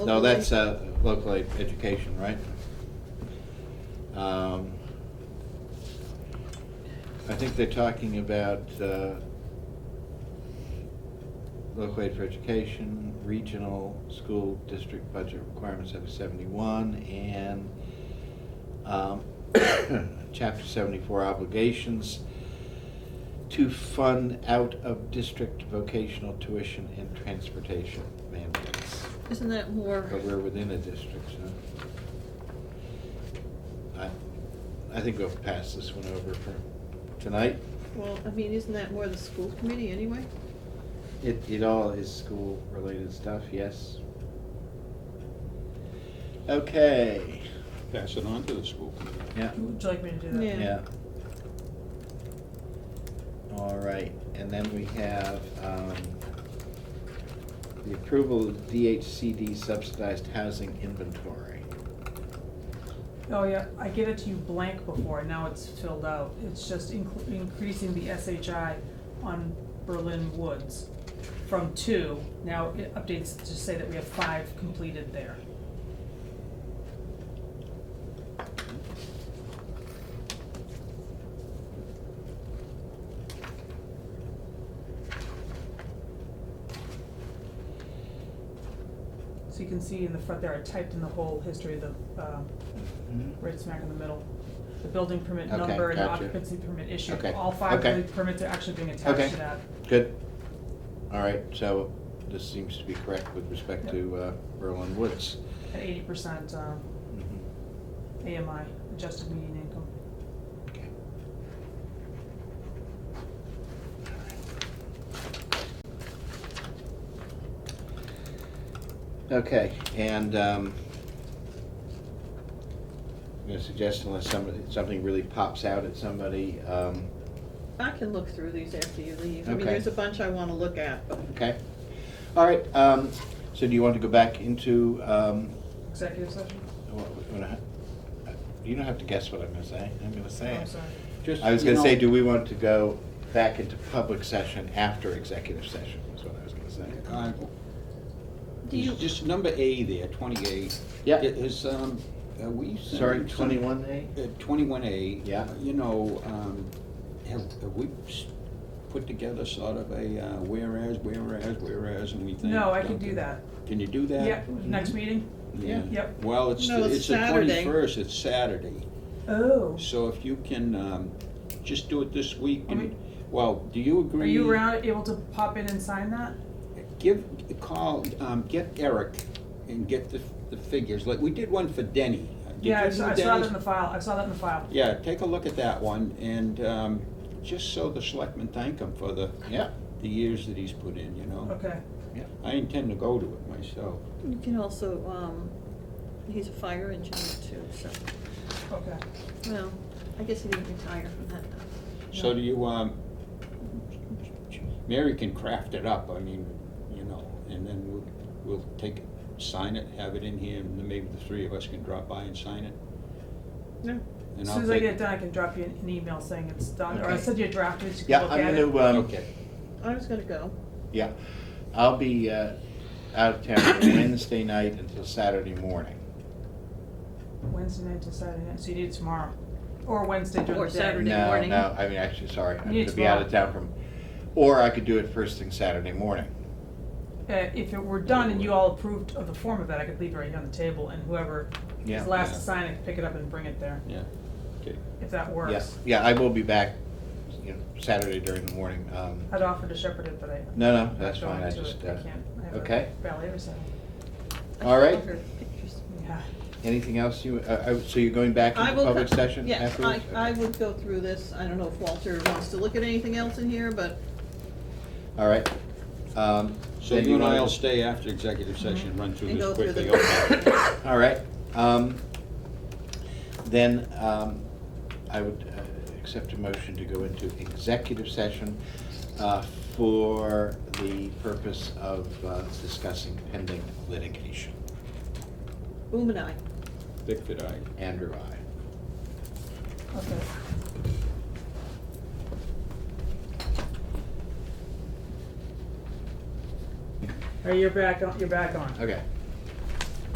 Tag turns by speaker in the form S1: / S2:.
S1: No, that's uh, local ed- education, right? Um, I think they're talking about uh, local aid for education, regional school district budget requirements of 71, and um, chapter 74 obligations to fund out-of-district vocational tuition and transportation mandates.
S2: Isn't that more,
S1: But we're within a district, so. I, I think we'll pass this one over for tonight.
S2: well, I mean, isn't that more the school committee anyway?
S1: It, it all is school-related stuff, yes. Okay,
S3: pass it on to the school committee.
S1: yeah,
S4: Would you like me to do that?
S2: Yeah.
S1: yeah. All right, and then we have, um, the approval of DHCD subsidized housing inventory.
S4: Oh, yeah, I gave it to you blank before, now it's filled out. It's just incl- increasing the SHI on Berlin Woods from two. Now it updates to say that we have five completed there. So you can see in the front there, I typed in the whole history of the, um,
S1: Mm-hmm.
S4: right smack in the middle. The building permit
S1: Okay,
S4: number and
S1: gotcha.
S4: occupancy permit issue,
S1: Okay,
S4: all five
S1: okay.
S4: of the permits are actually being
S1: Okay.
S4: attached to that.
S1: Good. All right, so this seems to be correct with respect to uh, Berlin Woods.
S4: At eighty percent, um,
S1: Mhm.
S4: AMI, adjusted median income.
S1: Okay. Okay, and um, I'm gonna suggest unless somebody, something really pops out at somebody, um,
S2: I can look through these after you leave. I mean,
S1: Okay.
S2: there's a bunch I wanna look at, but
S1: okay? All right, um, so do you want to go back into um,
S4: Executive session? Oh,
S1: What- what I- You don't have to guess what I'm gonna say, I'm gonna say
S4: I'm
S1: it.
S4: sorry.
S3: Just,
S1: I was
S3: you
S1: gonna say,
S3: know,
S1: do we want to go back into public session after executive session, is what I was gonna say.
S3: uh,
S2: do you,
S3: Just number A there, twenty-eight.
S1: Yeah.
S3: It Is, um, are we? sending
S1: Sorry,
S3: some-
S1: twenty-one A?
S3: Uh, twenty-one A. Uh,
S1: Yeah.
S3: You know, um, have, have we s- put together sort of a uh, whereas, whereas, whereas, and we think.
S4: No, I can
S3: okay.
S4: do that.
S3: Can you do that?
S4: Yep, next meeting?
S1: Yeah.
S4: Yep.
S3: Well, it's,
S2: No,
S3: the-
S2: it's
S3: it's the
S2: Saturday.
S3: twenty-first, it's Saturday.
S4: Oh.
S3: So if you can, um, just do it this week
S4: Are
S3: and,
S4: we-
S3: well, do you agree?
S4: Are you around, able to pop in and sign that?
S3: Give, call, um, get Eric and get the, the figures, like, we did one for Denny. Did
S4: Yeah, I
S3: you
S4: saw,
S3: do
S4: I saw that
S3: Denny's?
S4: in the file, I saw that in the file.
S3: Yeah, take a look at that one, and, um, just so the selectmen thank him for the,
S1: Yeah,
S3: the years that he's put in, you know?
S4: Okay,
S1: yeah.
S3: I intend to go to it myself.
S2: you can also, um, he's a fire engineer too, so,
S4: okay.
S2: well, I guess he didn't retire from that. though.
S3: So
S2: No.
S3: do you, um, Mary can craft it up, I mean, you know, and then we'll, we'll take, it, sign it, have it in here, and then maybe the three of us can drop by and sign it.
S2: Yeah.
S3: and
S4: As
S3: I'll
S4: soon as I
S3: take-
S4: get it done, I can drop you an an email saying it's done, or I
S1: Okay.
S4: send you a draft, you can
S1: Yeah,
S4: look at it.
S1: I'm gonna, um,
S3: Okay.
S2: I was gonna go.
S1: yeah, I'll be uh, out of town from Wednesday night until Saturday morning.
S4: Wednesday night to Saturday night, so you need it tomorrow, or Wednesday during
S2: Or
S4: the day.
S2: Saturday. morning.
S1: No, no, I mean, actually, sorry, I'm
S4: Yeah,
S1: gonna be out of
S4: tomorrow.
S1: town from, or I could do it first thing Saturday morning.
S4: Uh, if it were done and you all approved of the form of that, I could leave it right here on the table and whoever
S1: Yeah.
S4: is last
S3: Yeah.
S4: to sign it, pick it up and bring it there,
S3: Yeah, okay.
S4: if that
S1: Yeah,
S4: works.
S1: yeah, I will be back, you know, Saturday during the morning. Um,
S4: I'd offer to shepherd it, but I.
S1: No, no,
S4: I'm
S1: that's
S4: not
S1: fine, I
S4: going to it.
S1: just,
S4: I
S1: uh,
S4: can't, I have
S1: okay.
S4: a ballet recital,
S2: I
S1: All right.
S2: saw her pictures.
S4: yeah.
S1: Anything else you, uh, uh, so you're going back
S2: I
S1: into
S2: will.
S1: public
S2: co-
S1: session
S2: Yes,
S1: afterwards?
S2: I, I would go through this. I don't know if Walter wants to look at anything else in here, but
S1: All right. Um,
S3: So
S1: then
S3: you and
S1: wanna-
S3: I'll stay after executive session, run through
S2: Mm-hmm. And go
S3: this
S2: through
S3: quickly.
S2: the-
S3: okay.
S1: All right. Um, Then um, I would uh, accept a motion to go into executive session uh, for the purpose of uh, discussing pending litigation.
S2: Boom and I.
S3: Dick did I.
S1: Andrew, I.
S4: Okay. All right, you're back on, you're back on.
S1: Okay.